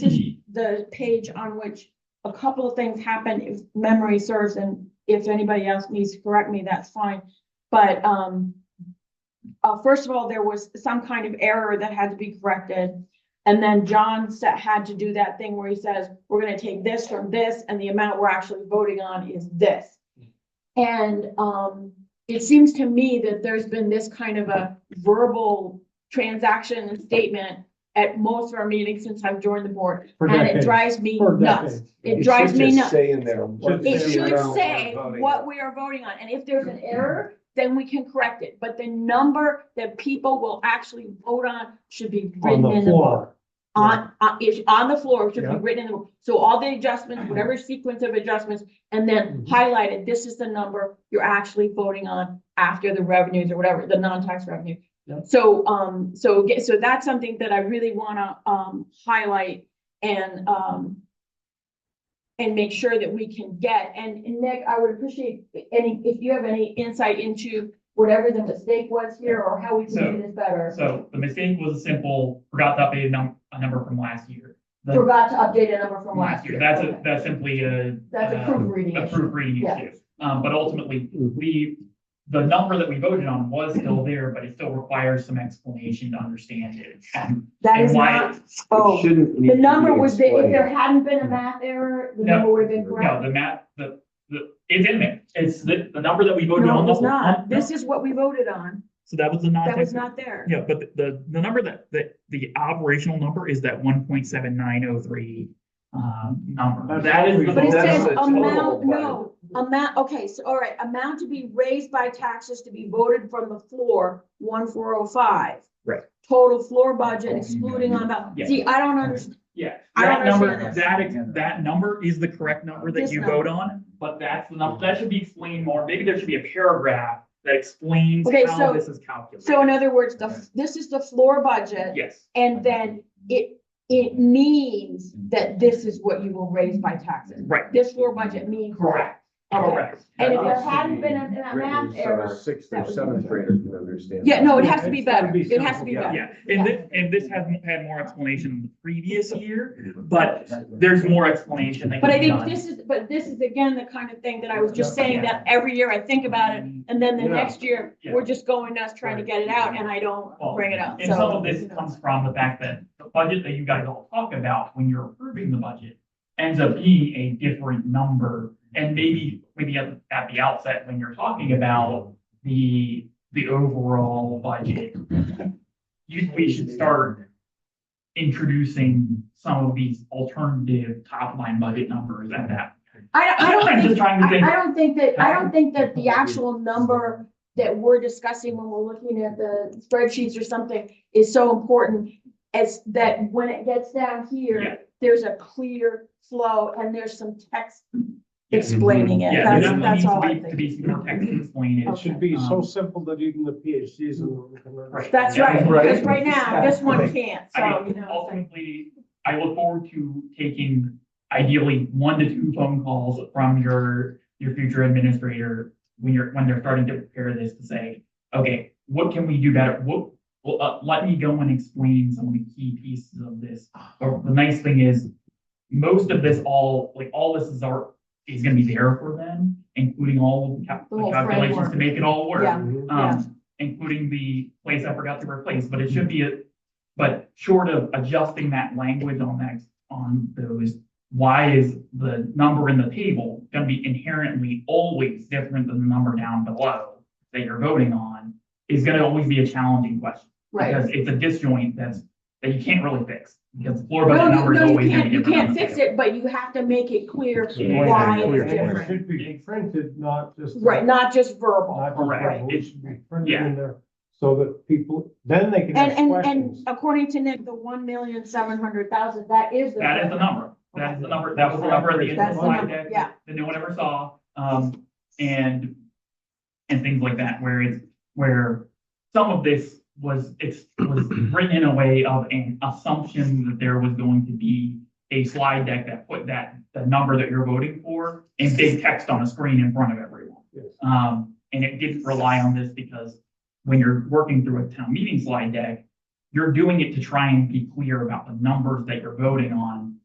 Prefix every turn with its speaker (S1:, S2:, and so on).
S1: the page on which a couple of things happened, if memory serves, and if anybody else needs to correct me, that's fine. But, um, uh, first of all, there was some kind of error that had to be corrected. And then John sa- had to do that thing where he says, we're gonna take this from this, and the amount we're actually voting on is this. And, um, it seems to me that there's been this kind of a verbal transaction and statement at most of our meetings since I've joined the board,
S2: For
S1: and it
S2: decades.
S1: drives me
S2: For
S1: nuts.
S2: decades.
S1: It drives me nuts.
S3: Say in there.
S2: what
S1: It
S2: the
S1: should
S2: amount
S1: say what we are voting on, and if there's an error, then we can correct it, but the number that people will actually vote on should be
S2: On
S1: written
S2: the
S1: in the book.
S2: floor.
S1: On, on, is on the floor, it should be
S2: Yeah.
S1: written in the, book. so all the adjustments, whatever sequence of adjustments, and then
S2: Mhm.
S1: highlighted, this is the number you're actually voting on after the revenues or whatever, the non-tax revenue.
S2: Yeah.
S1: So, um, so, ge- so that's something that I really wanna, um, highlight and, um, and make sure that we can get. And and Nick, I would appreciate any, if you have any insight into whatever the mistake was here or how we can do this better.
S4: So the mistake was a simple, forgot to update a num- a number from last year. The-
S1: Forgot to update a number from last year.
S4: That's a,
S1: Okay.
S4: that's simply a.
S1: That's a
S4: uh,
S1: proofreading
S4: A
S1: issue.
S4: proofreading
S1: Yeah.
S4: issue. Um, but ultimately, we, the number that we voted on was still there, but it still requires some explanation to understand it. And
S1: That is
S4: and why-
S1: not, oh, the number was, the- if there hadn't been a math error, the
S4: No.
S1: number would have been
S4: No,
S1: correct.
S4: the math, the, the, it's in there. It's the, the number that we voted
S1: No,
S4: on.
S1: it
S4: the
S1: was
S4: whole-
S1: not.
S4: no.
S1: This is what we voted on.
S4: So that was the non.
S1: That was not there.
S4: Yeah, but the- the, the number that, that, the operational number is that one point seven nine oh three, um, number.
S2: That's
S4: That
S2: what
S4: is.
S2: we-
S4: the-
S1: But it
S3: That's
S1: says
S3: the total
S1: amount,
S3: budget.
S1: no, amount, okay, so, all right, amount to be raised by taxes to be voted from the floor, one four oh five.
S4: Right.
S1: Total floor budget excluding on about,
S4: Yeah.
S1: see, I don't understand,
S4: Yeah,
S1: I don't
S4: that number,
S1: understand
S4: that, ex- that number is the correct number that
S1: This
S4: you
S1: number.
S4: vote on, but that's the number, that should be explained more. Maybe there should be a paragraph that explains
S1: Okay, so-
S4: how this is calculated.
S1: so in other words, the, this is the floor budget,
S4: Yes,
S1: and then it, it means that this is what you will raise by taxes.
S4: right,
S1: This floor budget means.
S4: correct,
S1: Okay.
S4: correct. Uh,
S1: And if there hadn't been a a math error,
S3: Sixth
S1: that
S3: or
S1: would-
S3: seventh grader can understand.
S1: yeah, no, it has to be
S2: It's gotta
S1: better,
S2: be
S1: it has to be
S2: simple,
S1: better.
S4: Yeah, and this, and this hasn't had more explanation in the previous year, but there's more explanation that
S1: But I
S4: can be
S1: think
S4: done.
S1: this is, but this is again, the kind of thing that I was just saying, that every year I think about it, and then the
S2: Yeah.
S1: next year, we're just going nuts trying to get it out, and I don't
S4: Well,
S1: bring it up,
S4: And some
S1: so.
S4: of this comes from the fact that the budget that you guys all talk about when you're approving the budget ends up being a different number. And maybe, maybe at, at the outset, when you're talking about the, the overall budget, you, we should start introducing some of these alternative top line budget numbers at that.
S1: I, I don't
S4: I'm just
S1: think,
S4: trying to
S1: I,
S4: think.
S1: I don't think that, I don't think that the actual number that we're discussing when we're looking at the spreadsheets or something is so important as that when it gets down
S4: Yeah.
S1: here, there's a clear flow and there's some text
S4: Yeah.
S1: explaining it,
S4: Yeah,
S1: that's,
S4: there
S1: that's
S4: definitely
S1: all I
S4: needs to
S1: think.
S4: be, to be more Um, text explained.
S2: It should be so simple that even the PhDs in the room can
S4: Right.
S2: understand.
S1: That's right,
S3: Right.
S1: because right now, this one can't,
S4: I
S1: so, you
S4: mean,
S1: know. it's like-
S4: ultimately, I look forward to taking ideally one to two phone calls from your, your future administrator when you're, when they're starting to prepare this to say, okay, what can we do better? What, well, uh, let me go and explain some of the key pieces of this. Or the nice thing is, most of this all, like, all this is our, is gonna be there for them, including all of the cal-
S1: The whole
S4: the calculations to
S1: framework.
S4: make it all work
S1: Yeah.
S3: Mm-hmm.
S2: Mhm.
S1: Yeah.
S4: um, including the place I forgot to replace, but it should be a, but short of adjusting that language on that, on those, why is the number in the table gonna be inherently always different than the number down below that you're voting on, is gonna always be a challenging question.
S1: Right.
S4: Because it's a disjoint that's, that you can't really fix, because the floor
S1: No,
S4: budget
S1: you,
S4: number is
S1: no, you
S4: always gonna
S1: can't,
S4: be
S1: you
S4: different.
S1: can't fix it, but you have to make it clear
S3: Yeah.
S1: why
S2: And
S1: it's
S2: It
S1: different.
S2: should be printed, not just.
S1: Right, not just verbal.
S2: Not just
S4: Correct.
S2: verbal. It
S4: It's-
S2: should be printed
S4: yeah.
S2: in there so that people, then they can
S1: And, and,
S2: ask
S1: and
S2: questions.
S1: according to Nick, the one million seven hundred thousand, that is the.
S4: That is the number. That is the number, that was the number at the end of
S1: That's
S4: the
S1: the
S4: slide
S1: number,
S4: deck.
S1: yeah.
S4: That no one ever saw, um, and, and things like that, where it's, where some of this was, it's, was written in a way of an assumption that there was going to be a slide deck that put that, the number that you're voting for in big text on a screen in front of everyone.
S2: Yes.
S4: Um, and it didn't rely on this because when you're working through a town meeting slide deck, you're doing it to try and be clear about the numbers that you're voting on